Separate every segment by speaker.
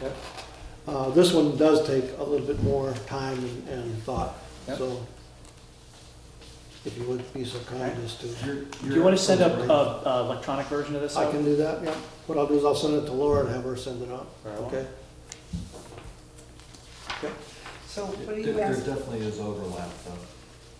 Speaker 1: Yep.
Speaker 2: Uh, This one does take a little bit more time and- and thought,
Speaker 1: Yep.
Speaker 2: so if you would be so kind as to,
Speaker 3: Do you want to send up a, a electronic version of this?
Speaker 2: I
Speaker 3: out?
Speaker 2: can do that, yeah. What I'll do is I'll send it to Laura and have her send it out,
Speaker 3: Very well.
Speaker 2: okay?
Speaker 4: So what are
Speaker 1: There
Speaker 4: you
Speaker 1: there
Speaker 4: asking?
Speaker 1: definitely is overlap though.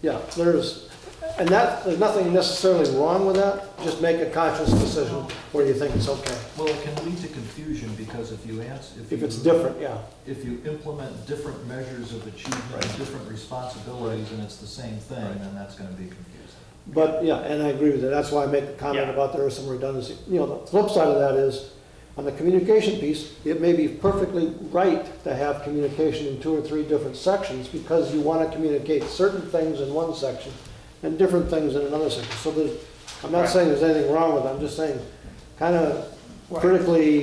Speaker 2: Yeah, there's, and that, there's nothing necessarily wrong with that, just make a conscious decision where you think it's okay.
Speaker 1: Well, it can lead to confusion because if you ask, if you.
Speaker 2: If it's different, yeah.
Speaker 1: If you implement different measures of achievement, different responsibilities, and it's the same thing, then that's gonna be confusing.
Speaker 2: But, yeah, and I agree with that, that's why I make the comment
Speaker 3: Yeah.
Speaker 2: about there is some redundancy. You know, the flip side of that is, on the communication piece, it may be perfectly right to have communication in two or three different sections, because you want to communicate certain things in one section and different things in another section. So there's, I'm not
Speaker 3: Right.
Speaker 2: saying there's anything wrong with it, I'm just saying, kind of
Speaker 4: Right.
Speaker 2: critically,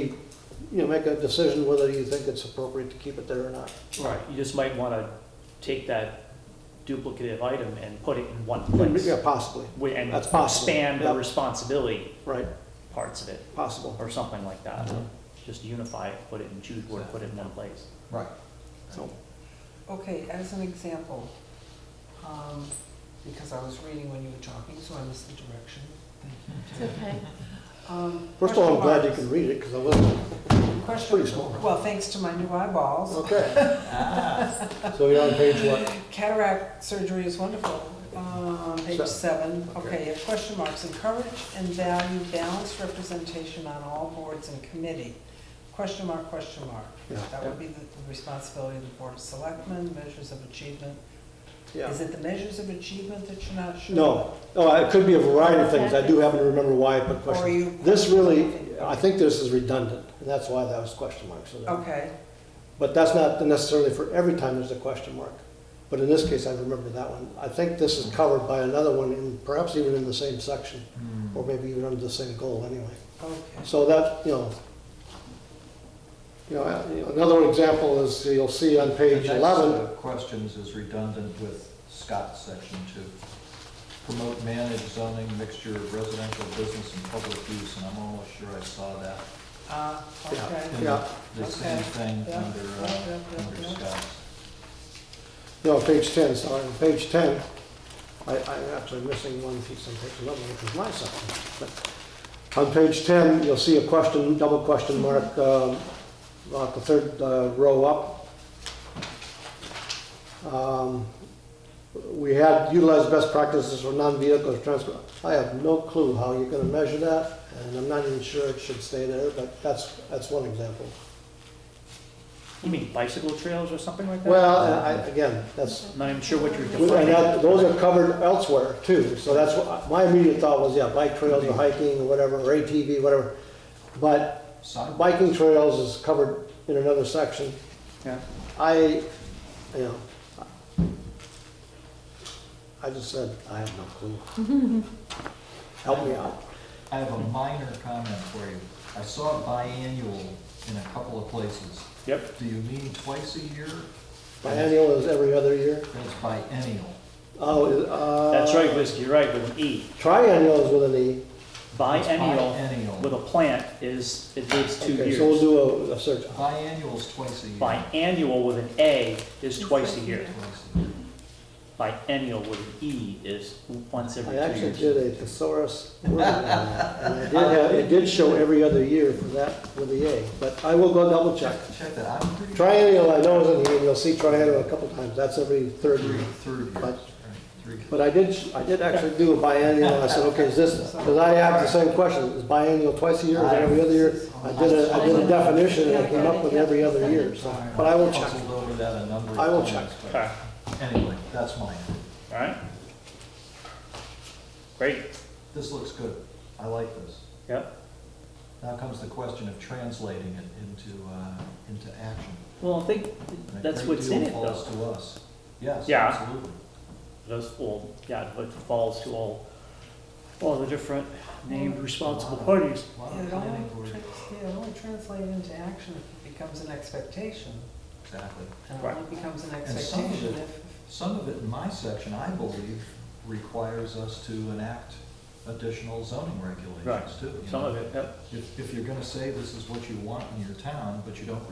Speaker 2: you know, make a decision whether you think it's appropriate to keep it there or not.
Speaker 3: Right, you just might want to take that duplicative item and put it in one place.
Speaker 2: Yeah, possibly,
Speaker 3: Wi- And
Speaker 2: That's possible.
Speaker 3: expand the
Speaker 2: Yep.
Speaker 3: responsibility
Speaker 2: right,
Speaker 3: parts of it,
Speaker 2: possible.
Speaker 3: or something like that. Just unify it, put it in, choose where to put it in one place.
Speaker 1: Right.
Speaker 2: So,
Speaker 4: Okay, as an example, um, because I was reading when you were talking, so I missed the direction.
Speaker 5: It's okay.
Speaker 4: Um,
Speaker 2: First of all, I'm glad you
Speaker 4: question
Speaker 2: can read it, because I wasn't,
Speaker 4: marks. Question
Speaker 2: pretty small.
Speaker 4: Well, thanks to my new eyeballs,
Speaker 2: Okay. So you're on page what?
Speaker 4: cataract surgery is wonderful. Um, Page
Speaker 2: Seven.
Speaker 4: seven,
Speaker 2: Okay.
Speaker 4: okay, if question marks, encourage and value balanced representation on all boards and committee. Question mark, question mark.
Speaker 2: Yeah.
Speaker 4: That would be the the responsibility of the Board of Selectmen, measures of achievement.
Speaker 2: Yeah.
Speaker 4: Is it the measures of achievement that you're not sure?
Speaker 2: No, oh, it could be a variety of things. I do happen to remember why I put
Speaker 4: Or
Speaker 2: question.
Speaker 4: you?
Speaker 2: This really, I think this is redundant, and that's why that was question mark. so that-
Speaker 4: Okay,
Speaker 2: But that's not necessarily for every time there's a question mark. But in this case, I remember that one. I think this is covered by another one, and perhaps even in the same section,
Speaker 1: Hmm.
Speaker 2: or maybe even under the same goal anyway.
Speaker 4: okay.
Speaker 2: So that, you know, you know, I- another example is, you'll see on
Speaker 1: The
Speaker 2: page
Speaker 1: next,
Speaker 2: 11,
Speaker 1: uh, Questions is redundant with Scott's section two. Promote managed zoning, mixture of residential, business, and public use, and I'm almost sure I saw that.
Speaker 4: Uh,
Speaker 2: Yeah.
Speaker 4: okay.
Speaker 1: in
Speaker 2: Yeah.
Speaker 1: The same
Speaker 4: Okay.
Speaker 1: thing
Speaker 4: Yeah.
Speaker 1: under,
Speaker 4: Yeah, yeah,
Speaker 1: uh,
Speaker 4: yeah,
Speaker 1: under
Speaker 4: yeah.
Speaker 1: Scott's.
Speaker 2: No, page ten, sorry, on page ten, I, I'm actually missing one piece on page eleven, which is my section. But On page ten, you'll see a question, double question mark, um, about the third uh, row up. Um, We had utilized best practices for non-vehicle transport. I have no clue how you're gonna measure that, and I'm not even sure it should stay there, but that's, that's one example.
Speaker 3: You mean bicycle trails or something like that?
Speaker 2: Well, I, I- again, that's,
Speaker 3: I'm Not even sure what you're
Speaker 2: And
Speaker 3: defining.
Speaker 2: that, those are covered elsewhere too, so that's what, my immediate thought was, yeah, bike trails or hiking or whatever, or ATV, whatever. But
Speaker 1: Sidewalk,
Speaker 2: biking trails is covered in another section.
Speaker 3: Yeah.
Speaker 2: I, you know, I just said, I have no clue. Help me out.
Speaker 1: I have a minor comment for you. I saw biannual in a couple of places.
Speaker 3: Yep,
Speaker 1: Do you mean twice a year?
Speaker 2: Biennial is every other year.
Speaker 1: It's biennial.
Speaker 2: Oh, is- uh.
Speaker 3: that's right, Liz, you're right, with an E.
Speaker 2: Triennial is with an E.
Speaker 3: Biennial
Speaker 1: Biennial.
Speaker 3: with a plant is, it lives two
Speaker 2: Okay, So we'll
Speaker 3: years.
Speaker 2: do a, a search.
Speaker 1: Biannual's twice a year.
Speaker 3: Biannual with an A is twice a year.
Speaker 1: Twice a year.
Speaker 3: Biennial with an E is once every
Speaker 2: I
Speaker 3: two years.
Speaker 2: actually did a thesaurus word, on that, and I did have, it did show every other year for that with the A, but I will go double check.
Speaker 1: Check that, I'm pretty.
Speaker 2: Triennial, I know is in here, you'll see triennial a couple times, that's every third
Speaker 1: Three,
Speaker 2: year.
Speaker 1: third year,
Speaker 2: But-
Speaker 1: right, three.
Speaker 2: But I did, I did actually do a biennial, I said, okay, is this, because I have the same question, is biennial twice a year, is it every other year? I did a, I did a definition, and I came up with every other year, so, but I will check.
Speaker 1: Puzzled over that a number of
Speaker 2: I will
Speaker 1: times,
Speaker 2: check.
Speaker 1: but
Speaker 3: Okay,
Speaker 1: Anyway, that's mine.
Speaker 3: all right. Great,
Speaker 1: This looks good, I like this.
Speaker 3: yep.
Speaker 1: Now comes the question of translating it into, uh, into action.
Speaker 3: Well, I think
Speaker 1: And a
Speaker 3: that's
Speaker 1: great
Speaker 3: what's in
Speaker 1: deal
Speaker 3: it
Speaker 1: Falls
Speaker 3: though.
Speaker 1: to us, yes,
Speaker 3: Yeah.
Speaker 1: absolutely.
Speaker 3: Those, well, yeah, but falls to all, all the different named responsible parties.
Speaker 1: A lot
Speaker 4: Yeah,
Speaker 1: of
Speaker 4: It
Speaker 1: planning
Speaker 4: only,
Speaker 1: board,
Speaker 4: trans- yeah, it only translates into action if it becomes an expectation.
Speaker 1: exactly.
Speaker 4: And it
Speaker 3: Right.
Speaker 4: only becomes an
Speaker 1: And some of
Speaker 4: expectation
Speaker 1: it-
Speaker 4: if,
Speaker 1: Some of it in my section, I believe, requires us to enact additional zoning regulations
Speaker 3: Right.
Speaker 1: too. you
Speaker 3: Some
Speaker 1: know.
Speaker 3: of it, yep.
Speaker 1: If, if you're gonna say this is what you want in your town, but you don't